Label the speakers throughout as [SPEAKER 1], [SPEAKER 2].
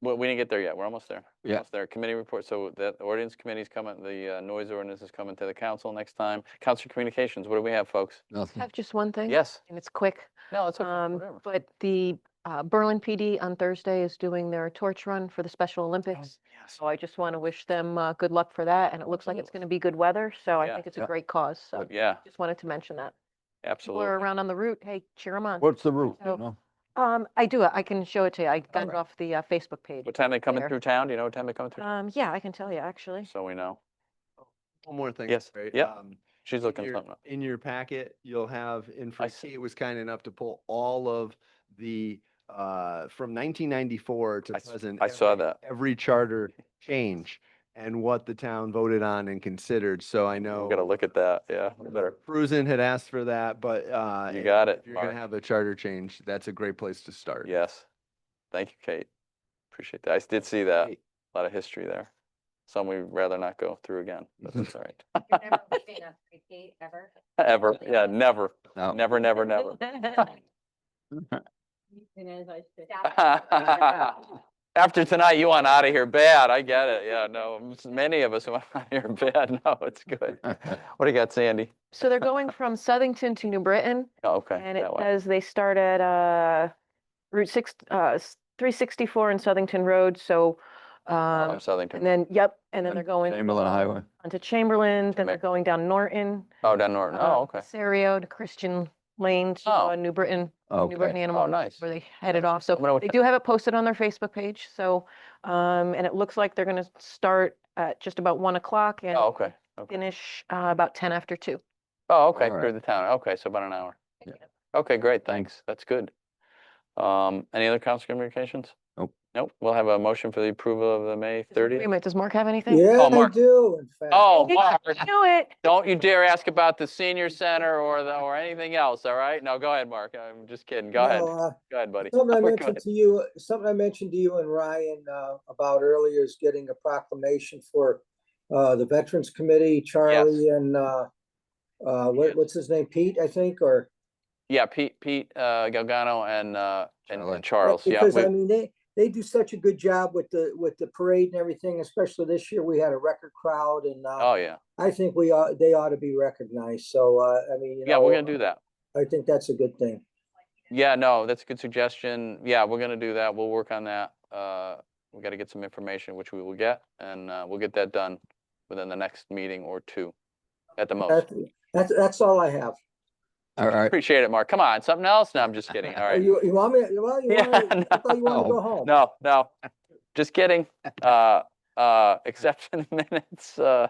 [SPEAKER 1] Well, we didn't get there yet. We're almost there. We're
[SPEAKER 2] Yeah.
[SPEAKER 1] Almost there. Committee report. So that ordinance committee's coming, the uh, noise ordinance is coming to the council next time. Council communications, what do we have, folks?
[SPEAKER 2] Nothing.
[SPEAKER 3] I have just one thing.
[SPEAKER 1] Hmm. Yes.
[SPEAKER 3] And it's quick.
[SPEAKER 1] No, it's okay.
[SPEAKER 3] Um,
[SPEAKER 1] Whatever.
[SPEAKER 3] But the uh, Berlin PD on Thursday is doing their torch run for the Special
[SPEAKER 1] Oh,
[SPEAKER 3] Olympics.
[SPEAKER 1] yes.
[SPEAKER 3] So I just want to wish them uh, good luck for that. And it looks like it's going to be good weather. So I
[SPEAKER 1] Yeah.
[SPEAKER 3] think it's a
[SPEAKER 2] Yeah.
[SPEAKER 3] great cause. So
[SPEAKER 1] Yeah,
[SPEAKER 3] just wanted to mention that. People
[SPEAKER 1] absolutely.
[SPEAKER 3] are around on the route. Hey, cheer them on.
[SPEAKER 2] What's the route?
[SPEAKER 3] So-
[SPEAKER 2] No?
[SPEAKER 3] Um, I do. I can show it to you. I got it
[SPEAKER 2] right.
[SPEAKER 3] off the uh, Facebook page.
[SPEAKER 1] What time they coming
[SPEAKER 3] there.
[SPEAKER 1] through town? Do you know what time they coming through?
[SPEAKER 3] Um, yeah, I can tell you actually.
[SPEAKER 1] So we know.
[SPEAKER 4] One more thing.
[SPEAKER 1] Yes,
[SPEAKER 4] sorry,
[SPEAKER 1] yep.
[SPEAKER 4] um,
[SPEAKER 1] She's
[SPEAKER 4] in
[SPEAKER 1] looking
[SPEAKER 4] your-
[SPEAKER 1] something up.
[SPEAKER 4] In your packet, you'll have, info.
[SPEAKER 1] see.
[SPEAKER 4] Kate was kind enough to pull all of the, uh, from nineteen ninety-four to
[SPEAKER 1] I s-
[SPEAKER 4] present.
[SPEAKER 1] I saw
[SPEAKER 4] every-
[SPEAKER 1] that.
[SPEAKER 4] Every charter change and what the town voted on and considered. So I know.
[SPEAKER 1] We gotta look at that. Yeah, we better.
[SPEAKER 4] Cruzen had asked for that, but, uh.
[SPEAKER 1] You
[SPEAKER 4] if-
[SPEAKER 1] got it,
[SPEAKER 4] If you're gonna
[SPEAKER 1] Mark.
[SPEAKER 4] have a charter change, that's a great place to start.
[SPEAKER 1] Yes. Thank you, Kate. Appreciate that. I s- did see that.
[SPEAKER 4] Great.
[SPEAKER 1] A lot of history there. Some we'd rather not go through again, but that's all right.
[SPEAKER 5] You've never worked in a free gate ever?
[SPEAKER 1] Ever. Yeah, never,
[SPEAKER 2] No.
[SPEAKER 1] never, never, never. After tonight, you want out of here bad. I get it. Yeah, no, m- s- many of us want out of here bad. No, it's good. What do you got, Sandy?
[SPEAKER 3] So they're going from Southington to New Britain.
[SPEAKER 1] Oh, Okay.
[SPEAKER 3] And it
[SPEAKER 1] that way.
[SPEAKER 3] says they start at uh, Route 6, uh, s- 364 in Southington Road, so,
[SPEAKER 1] Oh,
[SPEAKER 3] um,
[SPEAKER 1] I'm Southington.
[SPEAKER 3] and then, yep, and then
[SPEAKER 2] And
[SPEAKER 3] they're going
[SPEAKER 2] Chamberlain Highway.
[SPEAKER 3] onto Chamberlain, then they're
[SPEAKER 1] Mac-
[SPEAKER 3] going down Norton.
[SPEAKER 1] Oh, down Norton.
[SPEAKER 3] uh,
[SPEAKER 1] Oh, okay.
[SPEAKER 3] Serio to Christian Lane to
[SPEAKER 1] Oh.
[SPEAKER 3] uh, New Britain, New Britain
[SPEAKER 2] Okay.
[SPEAKER 3] Animal.
[SPEAKER 1] Oh, nice.
[SPEAKER 3] Where they headed off,
[SPEAKER 1] I'm gonna
[SPEAKER 3] so
[SPEAKER 1] look
[SPEAKER 3] they
[SPEAKER 1] at-
[SPEAKER 3] do have it posted on their Facebook page, so, um, and it looks like they're gonna start at just about 1 o'clock and
[SPEAKER 1] Oh, okay. okay.
[SPEAKER 3] finish uh, about 10 after 2.
[SPEAKER 1] Oh, okay,
[SPEAKER 2] Alright.
[SPEAKER 1] through the town. Okay, so about an hour.
[SPEAKER 2] Yeah.
[SPEAKER 1] Okay, great, thanks. That's good. Um, any other council communications?
[SPEAKER 2] Nope.
[SPEAKER 1] Nope. We'll have a motion for the approval of the May
[SPEAKER 3] Is there an
[SPEAKER 1] thirtieth.
[SPEAKER 3] agreement? Does Mark have anything?
[SPEAKER 1] Oh,
[SPEAKER 6] Yeah, they
[SPEAKER 1] Mark.
[SPEAKER 6] do, in fact.
[SPEAKER 1] Oh,
[SPEAKER 3] Hey,
[SPEAKER 1] Mark,
[SPEAKER 3] Do it.
[SPEAKER 1] don't you dare ask about the senior center or the, or anything else, all right? No, go ahead, Mark. I'm just kidding. Go ahead.
[SPEAKER 6] No, uh,
[SPEAKER 1] Go ahead, buddy.
[SPEAKER 6] Something I
[SPEAKER 1] Go
[SPEAKER 6] mentioned
[SPEAKER 1] ahead.
[SPEAKER 6] to you, something I mentioned to you and Ryan uh, about earlier is getting a proclamation for uh, the Veterans Committee, Charlie and uh, uh,
[SPEAKER 1] Yes.
[SPEAKER 6] what- what's his name, Pete, I think, or?
[SPEAKER 1] Yeah, Pete, Pete, uh, Galgano and, uh, and-
[SPEAKER 2] Charlie.
[SPEAKER 1] and Charles, yeah.
[SPEAKER 6] Because
[SPEAKER 1] we-
[SPEAKER 6] I mean, they, they do such a good job with the, with the parade and everything, especially this year, we had a record crowd and uh,
[SPEAKER 1] Oh, yeah.
[SPEAKER 6] I think we ought, they ought to be recognized, so uh, I mean, you know.
[SPEAKER 1] Yeah, we're gonna do that.
[SPEAKER 6] I think that's a good thing.
[SPEAKER 1] Yeah, no, that's a good suggestion. Yeah, we're gonna do that. We'll work on that. Uh, we gotta get some information, which we will get, and, uh, we'll get that done within the next meeting or two at the most.
[SPEAKER 6] That's, that's, that's all I have.
[SPEAKER 2] All right.
[SPEAKER 1] Appreciate it, Mark. Come on, something else? No, I'm just kidding. All
[SPEAKER 6] Oh,
[SPEAKER 1] right.
[SPEAKER 6] You, you want me, you want, you
[SPEAKER 1] Yeah,
[SPEAKER 6] want, me- I thought you wanted to
[SPEAKER 2] no,
[SPEAKER 6] go home.
[SPEAKER 1] No, no, just kidding. Uh, uh, except for the minutes, uh,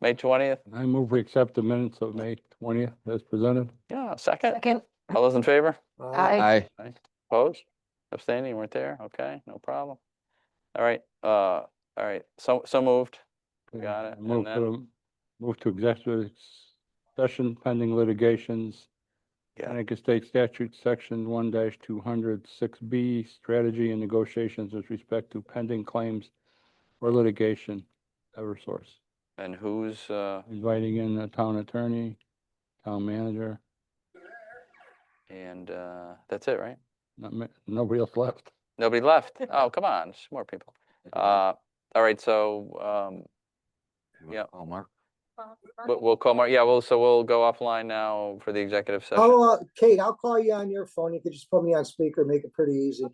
[SPEAKER 1] May twentieth.
[SPEAKER 7] I move we accept the minutes of May twentieth as presented.
[SPEAKER 1] Yeah, second.
[SPEAKER 3] Second.
[SPEAKER 1] All those in favor?
[SPEAKER 6] Uh,
[SPEAKER 2] Aye.
[SPEAKER 1] Opposed? Abstaining? You weren't there? Okay, no problem. All right, uh, all right, so, so moved. Got it, and
[SPEAKER 7] Move
[SPEAKER 1] then-
[SPEAKER 7] to, move to executive session pending litigations.
[SPEAKER 1] Yeah.
[SPEAKER 7] Connecticut State Statute, Section one two hundred six B, strategy and negotiations with respect to pending claims or litigation, Eversource.
[SPEAKER 1] And who's, uh,
[SPEAKER 7] Inviting in the town attorney, town manager,
[SPEAKER 1] and, uh, that's it, right?
[SPEAKER 7] not ma- nobody else left.
[SPEAKER 1] Nobody left. Oh, come on, it's more people. Uh, all right, so, um, Yeah.
[SPEAKER 2] Oh, Mark.
[SPEAKER 1] we'll, we'll call Mark, yeah, well, so we'll go offline now for the executive session.
[SPEAKER 6] I'll, uh, Kate, I'll call you on your phone. You could just put me on speaker, make it pretty easy.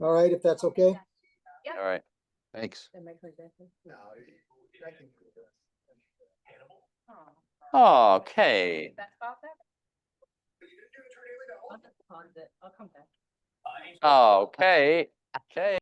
[SPEAKER 6] All right, if that's okay?
[SPEAKER 1] All right,
[SPEAKER 2] Thanks.
[SPEAKER 1] okay.
[SPEAKER 5] I'll come back.
[SPEAKER 1] Okay, okay.